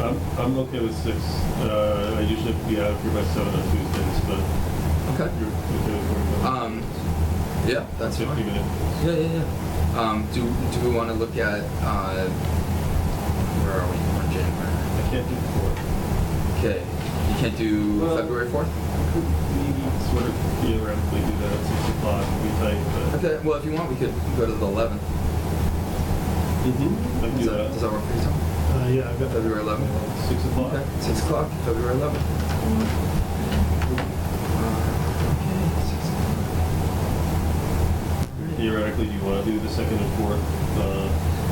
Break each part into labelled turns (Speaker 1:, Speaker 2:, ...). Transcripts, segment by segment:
Speaker 1: I'm, I'm okay with six. Uh, I usually have to be out of here by seven on Tuesdays, but
Speaker 2: Okay.
Speaker 1: you're okay with working on
Speaker 2: Um, yeah, that's fine.
Speaker 1: fifty minutes.
Speaker 2: Yeah, yeah, yeah. Um, do, do we want to look at, uh, where are we? We're in January.
Speaker 1: I can't do four.
Speaker 2: Okay. You can't do
Speaker 1: Well-
Speaker 2: February
Speaker 1: I
Speaker 2: 4th?
Speaker 1: could maybe sort of theoretically do that at six o'clock. It'd be tight, but
Speaker 2: Okay, well, if you want, we could go to the 11th.
Speaker 1: Mm-hmm. I can
Speaker 2: Does
Speaker 1: do
Speaker 2: that, does
Speaker 1: that.
Speaker 2: that work for you, Tom?
Speaker 3: Uh, yeah, I've got
Speaker 2: February 11th?
Speaker 1: Six o'clock.
Speaker 2: Okay, 6 o'clock, February 11th. Uh, okay, 6 o'clock.
Speaker 1: Theoretically, do you want to do the second and fourth? Uh,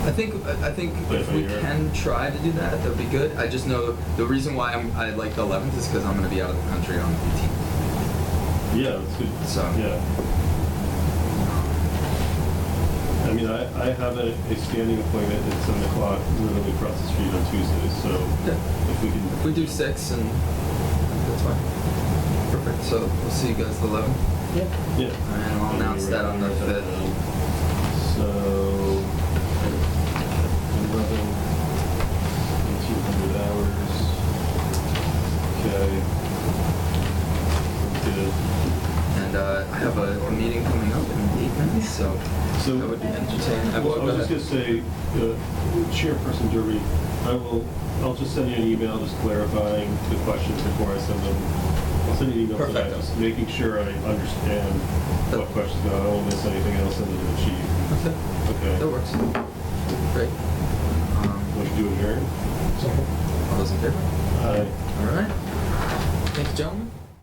Speaker 2: I think I I think
Speaker 1: Play it
Speaker 2: if
Speaker 1: by
Speaker 2: we
Speaker 1: ear.
Speaker 2: can try to do that, that'd be good. I just know the reason why I'm, I like the 11th is because I'm going to be out of the country on the 18th.
Speaker 1: yeah, that's good.
Speaker 2: So-
Speaker 1: yeah. I mean, I, I have a, a standing appointment at seven o'clock, literally across the street on Tuesdays. So
Speaker 2: Yeah.
Speaker 1: if we can,
Speaker 2: If we do six and that's fine. Perfect. So we'll see you guys the 11th.
Speaker 1: yeah.
Speaker 2: And I'll announce that on the 5th.
Speaker 1: So, eleven, eighteen hundred hours. Okay. Good.
Speaker 2: And uh, I have a, a meeting coming up in eight minutes, so
Speaker 1: So-
Speaker 2: that would be entertaining.
Speaker 1: Well, I
Speaker 2: go
Speaker 1: was just gonna
Speaker 2: ahead.
Speaker 1: say, uh, Chairperson Derby, I will, I'll just send you an email just clarifying the questions before I send them. I'll send you an email for that,
Speaker 2: Perfecto.
Speaker 1: just making sure I understand what questions, are. I won't miss anything else under the chief.
Speaker 2: Okay, that
Speaker 1: Okay.
Speaker 2: works. Great. Um,
Speaker 1: What you doing Uh, here?
Speaker 2: all those in favor?
Speaker 1: Aye.
Speaker 2: All right. Thank you, gentlemen.